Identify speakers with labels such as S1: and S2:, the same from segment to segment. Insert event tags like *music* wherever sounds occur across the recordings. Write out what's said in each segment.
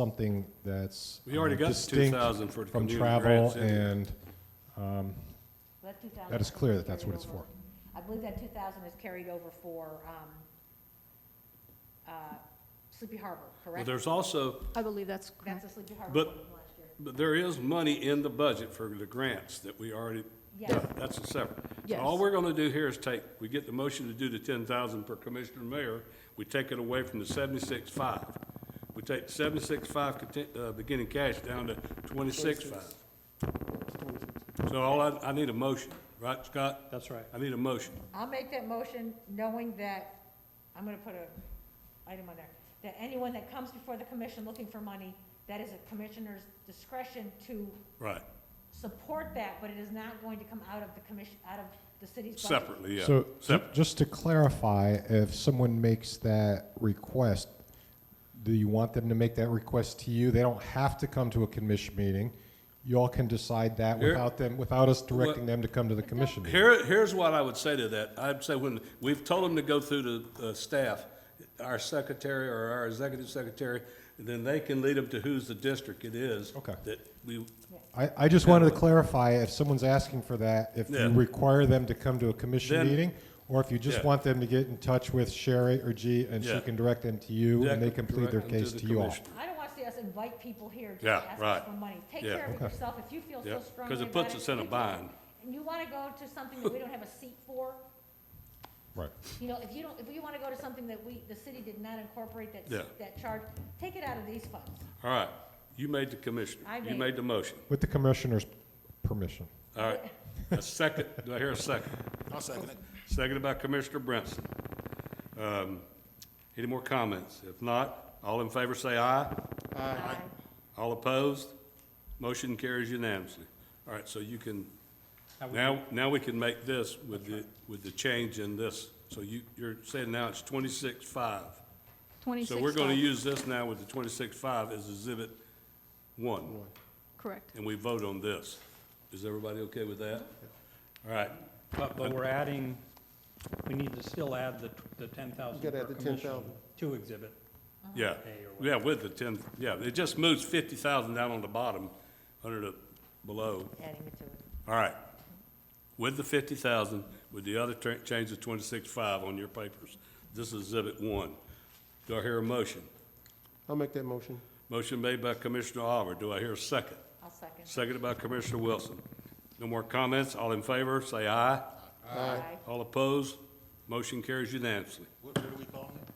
S1: something that's.
S2: We already
S1: um,
S2: got the
S1: distinct
S2: 2,000 for the
S1: From
S2: community
S1: travel
S2: grants in there.
S1: and, um,
S3: That 2,000
S1: that is clear that that's what
S3: carried
S1: it's
S3: over.
S1: for.
S3: I believe that two thousand is carried over for, um, uh, Sleepy Harbor,
S2: Well,
S3: correct?
S2: there's also,
S4: I believe that's
S3: That's
S4: correct.
S3: a Sleepy Harbor
S2: But-
S3: one from last year.
S2: but there is money in the budget for the grants that we already,
S3: Yes.
S2: that's a separate. So
S4: Yes.
S2: All we're gonna do here is take, we get the motion to do the ten thousand per commissioner and mayor, we take it away from the seventy-six five. We take seventy-six five content, uh, beginning cash down to twenty-six five. So all I, I need a motion, right, Scott?
S5: That's right.
S2: I need a motion.
S3: I'll make that motion knowing that, I'm gonna put a item on there, that anyone that comes before the commission looking for money, that is a commissioner's discretion to
S2: Right,
S3: support that, but it is not going to come out of the commission, out of the city's budget.
S2: separately, yeah,
S1: So, ju-
S2: separate.
S1: just to clarify, if someone makes that request, do you want them to make that request to you? They don't have to come to a commission meeting. You all can decide that
S2: Here-
S1: without them, without us directing them to come to the commission meeting.
S2: Here, here's what I would say to that. I'd say when, we've told them to go through the, uh staff, our secretary or our executive secretary, then they can lead them to who's the district it is.
S1: Okay.
S2: That we,
S1: I, I just wanted to clarify, if someone's asking for that, if you
S2: Yeah.
S1: require them to come to a commission
S2: Then-
S1: meeting, or if you just
S2: Yeah.
S1: want them to get in touch with Sherry or G, and she
S2: Yeah.
S1: can direct them to you, and they can plead their
S2: Direct them to
S1: case
S2: the
S1: to you all.
S2: commissioner.
S3: I don't want to see us invite people here just
S2: Yeah,
S3: to ask
S2: right.
S3: us for money. Take
S2: Yeah.
S3: care of it yourself if you feel
S2: Yeah,
S3: so
S2: 'cause
S3: strongly about
S2: it
S3: it.
S2: puts us in a
S3: take care of it.
S2: bind.
S3: And you want to go to something that we don't have a seat for,
S1: Right.
S3: you know, if you don't, if you want to go to something that we, the city did not incorporate that,
S2: Yeah.
S3: that charge, take it out of these funds.
S2: All right, you made the commissioner.
S3: I
S2: You
S3: made-
S2: made the motion.
S1: With the commissioner's permission.
S2: All right, a second, do I hear a second? I'll second it. Seconded by Commissioner Brinson. Um, Any more comments? If not, all in favor say aye. Aye. All opposed? Motion carries unanimously. All right, so you can,
S5: That would be-
S2: now, now we can make this with the, with the change in this. So you, you're saying now it's twenty-six five. So we're gonna
S4: 26.5.
S2: use this now with the twenty-six five as exhibit one
S4: Correct.
S2: and we vote on this. Is everybody okay with that? All right,
S5: But, but we're adding, we need to still add the, t- the ten thousand
S6: You gotta
S5: per
S6: add the
S5: commission
S6: 10,000.
S5: to exhibit.
S2: yeah, yeah, with the ten, yeah, it just moves fifty thousand down on the bottom, under the, below.
S3: Adding it to it.
S2: All right, with the fifty thousand, with the other tra- change of twenty-six five on your papers. This is exhibit one. Do I hear a motion?
S6: I'll make that motion.
S2: Motion made by Commissioner Oliver. Do I hear a second?
S3: I'll second.
S2: Seconded by Commissioner Wilson. No more comments? All in favor, say aye.
S3: Aye.
S2: All opposed? Motion carries unanimously.
S7: What, what do we call it?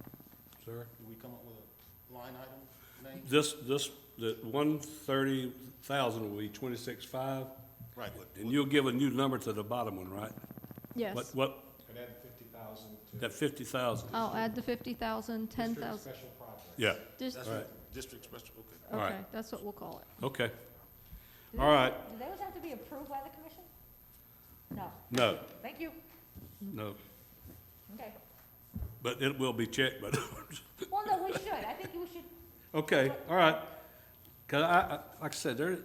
S2: Sir?
S7: Do we come up with a line item name?
S2: This, this, the one thirty thousand will be twenty-six five,
S7: Right, what,
S2: and you'll give a new number to the bottom one, right? What,
S4: Yes.
S2: what,
S1: And add fifty thousand
S2: that fifty thousand?
S4: I'll add the 50,000, 10,000.
S1: special project.
S2: Yeah,
S4: Just,
S7: that's
S2: Right.
S7: what district special, okay.
S2: all right.
S4: okay, that's what we'll call it.
S2: okay,
S3: Do
S2: all right,
S3: those- Do those have to be approved by the commission? No.
S2: no,
S3: Thank you.
S2: no,
S3: Okay.
S2: but it will be checked, but, *laughs*
S3: Well, no, we should. I think we should,
S2: okay, all right. Cause I, I, like I said, there,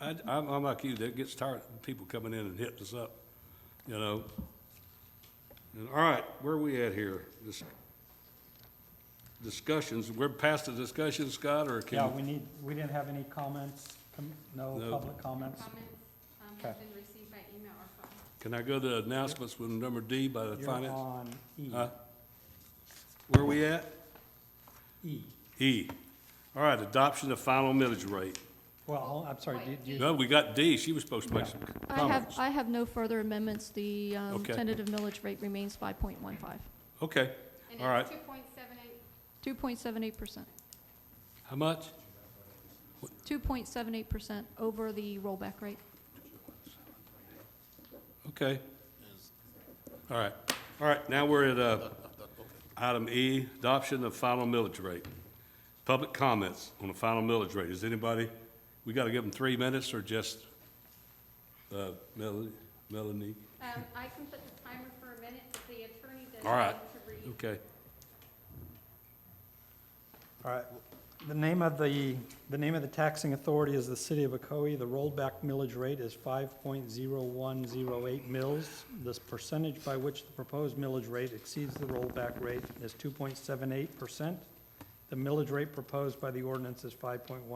S2: I, I'm, I'm like you, that gets tired of people coming in and hitting us up, you know? And, all right, where are we at here? This, discussions, we're past the discussion, Scott, or can?
S5: Yeah, we need, we didn't have any comments, com- no
S2: No.
S5: public comments.
S8: Comments um,
S5: Okay.
S8: have been received by email or phone.
S2: Can I go to announcements with number D by the
S5: You're
S2: finance?
S5: on E,
S2: Huh? Where we at?
S5: E.
S2: E. All right, adoption of final millage rate.
S5: Well, hold- I'm sorry, did you,
S2: No, we got D. She was supposed to make some
S4: I have,
S2: comments.
S4: I have no further amendments. The um,
S2: Okay.
S4: tentative millage rate remains 5.15,
S2: Okay, all right.
S8: And it's two point seven eight,
S4: 2.78%.
S2: How much?
S4: 2.78% over the rollback rate.
S2: Okay. All right, all right, now we're at, uh, item E, adoption of final millage rate. Public comments on the final millage rate. Is anybody, we gotta give them three minutes or just, uh, Melanie, Melanie?
S8: um, I can put the timer for a minute, if the attorney doesn't
S2: All right.
S8: want to read.
S2: Okay.
S5: all right. The name of the, the name of the taxing authority is the City of Ocoee. The rollback millage rate is five point zero one zero eight mils. This percentage by which the proposed millage rate exceeds the rollback rate is two point seven eight percent. The millage rate proposed by the ordinance is 5.1